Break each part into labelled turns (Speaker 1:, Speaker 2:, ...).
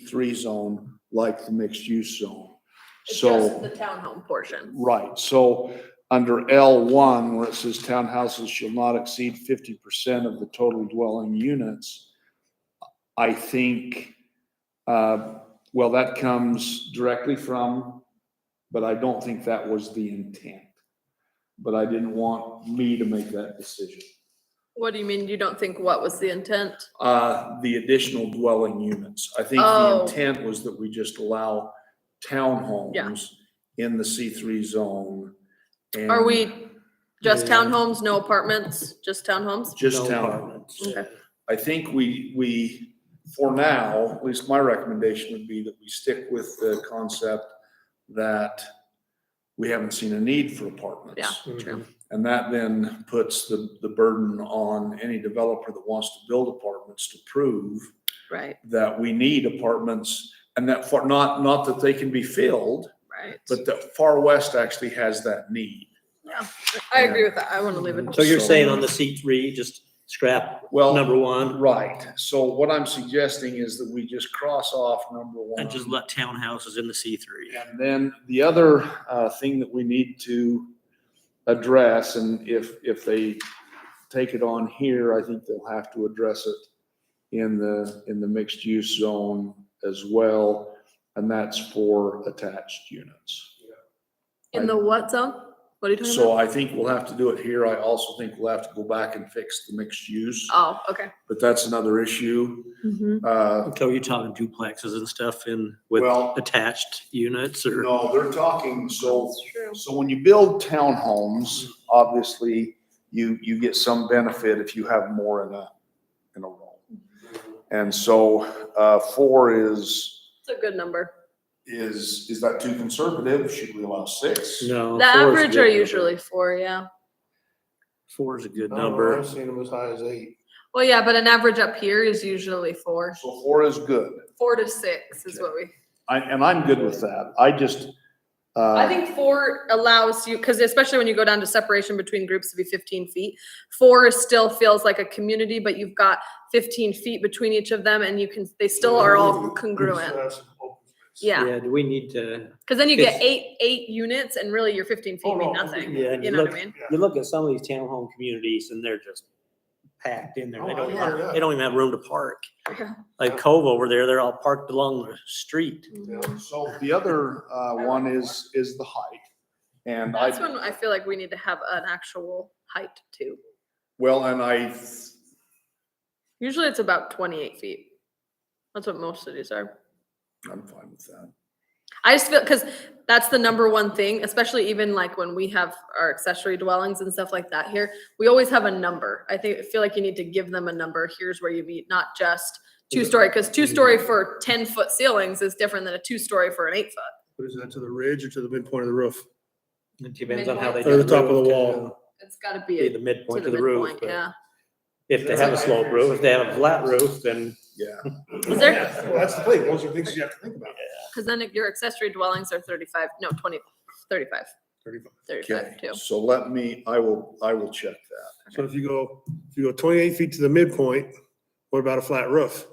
Speaker 1: three zone like the mixed use zone.
Speaker 2: It's
Speaker 1: So.
Speaker 2: just the townhome portion.
Speaker 1: Right, so under L one, where it says townhouses shall not exceed fifty percent of the total dwelling units, I think, uh, well, that comes directly from, but I don't think that was the intent. But I didn't want me to make that decision.
Speaker 2: What do you mean? You don't think what was the intent?
Speaker 1: Uh, the additional dwelling units, I think the
Speaker 2: Oh.
Speaker 1: intent was that we just allow townhomes in the C three zone.
Speaker 2: Are
Speaker 1: and-
Speaker 2: we just
Speaker 3: Yeah.
Speaker 2: townhomes, no apartments, just townhomes?
Speaker 1: Just
Speaker 3: No
Speaker 1: town.
Speaker 3: apartments.
Speaker 2: Okay.
Speaker 1: I think we, we, for now, at least my recommendation would be that we stick with the concept that we haven't seen a need for apartments.
Speaker 2: Yeah. True.
Speaker 3: Mhm.
Speaker 1: And that then puts the, the burden on any developer that wants to build apartments to prove
Speaker 2: Right,
Speaker 1: that we need apartments and that for, not, not that they can be filled,
Speaker 2: right.
Speaker 1: but that Far West actually has that need.
Speaker 2: I agree with that. I want to leave it.
Speaker 3: So you're saying on the C three, just scrap
Speaker 1: Well.
Speaker 3: number one
Speaker 1: Right, so what I'm suggesting is that we just cross off number one.
Speaker 3: and just let townhouses in the C three.
Speaker 1: And then the other uh, thing that we need to address, and if, if they take it on here, I think they'll have to address it in the, in the mixed use zone as well, and that's for attached units.
Speaker 2: In the what zone? What are you talking
Speaker 1: So
Speaker 2: about?
Speaker 1: I think we'll have to do it here. I also think we'll have to go back and fix the mixed use,
Speaker 2: Oh, okay.
Speaker 1: but that's another issue.
Speaker 2: Mm-hmm.
Speaker 1: Uh,
Speaker 3: So you're talking duplexes and stuff in with
Speaker 1: Well-
Speaker 3: attached units or?
Speaker 1: No, they're talking, so
Speaker 2: That's true.
Speaker 1: So when you build townhomes, obviously, you, you get some benefit if you have more in a, in a row.
Speaker 2: Mm-hmm.
Speaker 1: And so, uh, four is,
Speaker 2: It's a good number.
Speaker 1: is, is that too conservative? Should we allow six?
Speaker 3: No.
Speaker 2: The
Speaker 3: four is a
Speaker 2: average
Speaker 3: good
Speaker 2: are
Speaker 3: number.
Speaker 2: usually four, yeah.
Speaker 3: Four is a good
Speaker 4: I don't know,
Speaker 3: number.
Speaker 4: I've seen them as high as eight.
Speaker 2: Well, yeah, but an average up here is usually four.
Speaker 1: So four is good.
Speaker 2: Four to six is what we,
Speaker 1: I, and I'm good with that. I just, uh.
Speaker 2: I think four allows you, because especially when you go down to separation between groups to be fifteen feet. Four is still feels like a community, but you've got fifteen feet between each of them and you can, they still are all congruent.
Speaker 4: So that's some open space.
Speaker 2: Yeah,
Speaker 3: Do we need to,
Speaker 2: because then you get
Speaker 3: It's-
Speaker 2: eight, eight units and really your fifteen feet
Speaker 4: Oh,
Speaker 2: mean
Speaker 4: no, I'm
Speaker 2: nothing.
Speaker 3: yeah,
Speaker 2: You
Speaker 3: you
Speaker 2: know what
Speaker 3: look,
Speaker 2: I mean?
Speaker 3: you look at some of these townhome communities and they're just packed in there. They
Speaker 4: Oh,
Speaker 3: don't,
Speaker 4: yeah, yeah.
Speaker 3: have- they don't even have room to park.
Speaker 2: Yeah.
Speaker 3: Like Cove over there, they're all parked along the street.
Speaker 4: Yeah.
Speaker 1: So the other, uh, one is, is the height. And I.
Speaker 2: That's when I feel like we need to have an actual height too.
Speaker 1: Well, and I,
Speaker 2: Usually it's about twenty-eight feet. That's what most cities are.
Speaker 1: I'm fine with that.
Speaker 2: I just feel because that's the number one thing, especially even like when we have our accessory dwellings and stuff like that here. We always have a number. I think I feel like you need to give them a number. Here's where you meet, not just two story, because two story for ten foot ceilings is different than a two story for an eight foot.
Speaker 4: But is that to the ridge or to the midpoint of the roof?
Speaker 3: It depends on how they.
Speaker 2: Midpoint.
Speaker 3: do
Speaker 2: Or
Speaker 4: the top of the
Speaker 3: roof,
Speaker 4: wall.
Speaker 3: kinda
Speaker 2: It's gotta
Speaker 3: Be
Speaker 2: be
Speaker 3: the
Speaker 2: to
Speaker 3: midpoint
Speaker 2: the
Speaker 3: of the roof.
Speaker 2: midpoint,
Speaker 3: but
Speaker 2: yeah.
Speaker 3: If they have a slope roof, if they have a flat roof, then
Speaker 1: Yeah.
Speaker 2: Is there-
Speaker 4: Yeah, well, That's the thing, those are things you have to think about.
Speaker 2: Because then if your accessory dwellings are thirty-five, no, 20, 35,
Speaker 4: 35.
Speaker 2: 35
Speaker 1: Okay,
Speaker 2: too.
Speaker 1: so let me, I will, I will check that.
Speaker 4: So if you go, if you go twenty-eight feet to the midpoint, what about a flat roof?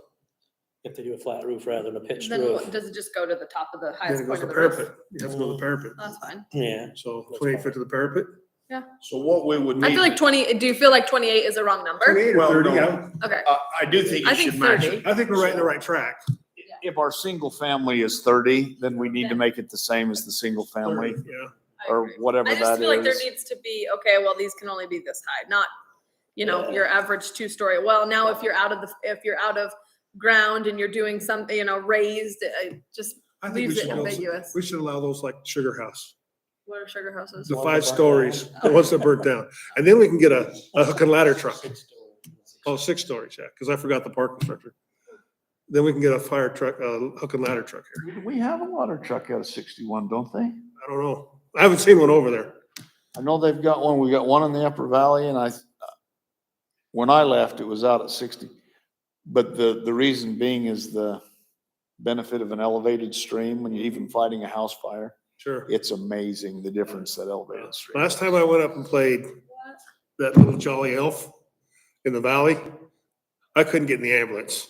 Speaker 3: if they do a flat roof rather than a pitched
Speaker 2: Then what-
Speaker 3: roof,
Speaker 2: does it just go to the top of the
Speaker 4: Then
Speaker 2: highest
Speaker 4: it
Speaker 2: point
Speaker 4: goes to
Speaker 2: of the roof?
Speaker 4: parapet, you have to go to the parapet.
Speaker 2: That's fine.
Speaker 3: yeah.
Speaker 4: So twenty-eight foot to the parapet,
Speaker 1: So what we would need.
Speaker 2: I feel like twenty, do you feel like twenty-eight is a wrong number?
Speaker 4: twenty-eight or
Speaker 1: Well,
Speaker 4: thirty,
Speaker 1: no.
Speaker 4: I
Speaker 2: Okay,
Speaker 1: I, I do think
Speaker 2: I
Speaker 1: it
Speaker 2: think
Speaker 1: should match.
Speaker 2: thirty.
Speaker 1: it.
Speaker 4: I think we're right in the right track.
Speaker 1: If our single family is thirty, then we need to make it the same as the single family
Speaker 4: Yeah.
Speaker 2: I
Speaker 1: uh, or
Speaker 2: agree.
Speaker 1: whatever
Speaker 2: I just
Speaker 1: that
Speaker 2: feel like there
Speaker 1: is.
Speaker 2: needs to be, okay, well, these can only be this high, not, you know, your average two-story. Well, now if you're out of the, if you're out of ground and you're doing something, you know, raised, it just
Speaker 4: I think we
Speaker 2: leaves it
Speaker 4: should, also-
Speaker 2: ambiguous.
Speaker 4: we should allow those like Sugar House,
Speaker 2: What are sugar houses?
Speaker 4: the
Speaker 3: Ones that
Speaker 4: five
Speaker 3: burnt down.
Speaker 4: stories, the ones that burnt down. And then we can get a, a hook and ladder truck. Oh, six stories, yeah, because I forgot the parking structure. Then we can get a fire truck, uh, hook and ladder truck here.
Speaker 1: We have a water truck out of sixty-one, don't they?
Speaker 4: I don't know. I haven't seen one over there.
Speaker 1: I know they've got one. We got one in the Upper Valley and I, when I left, it was out at sixty. But the, the reason being is the benefit of an elevated stream, when you're even fighting a house fire,
Speaker 4: Sure.
Speaker 1: it's amazing the difference that elevated stream.
Speaker 4: Last time I went up and played that little jolly elf in the valley, I couldn't get in the ambulance.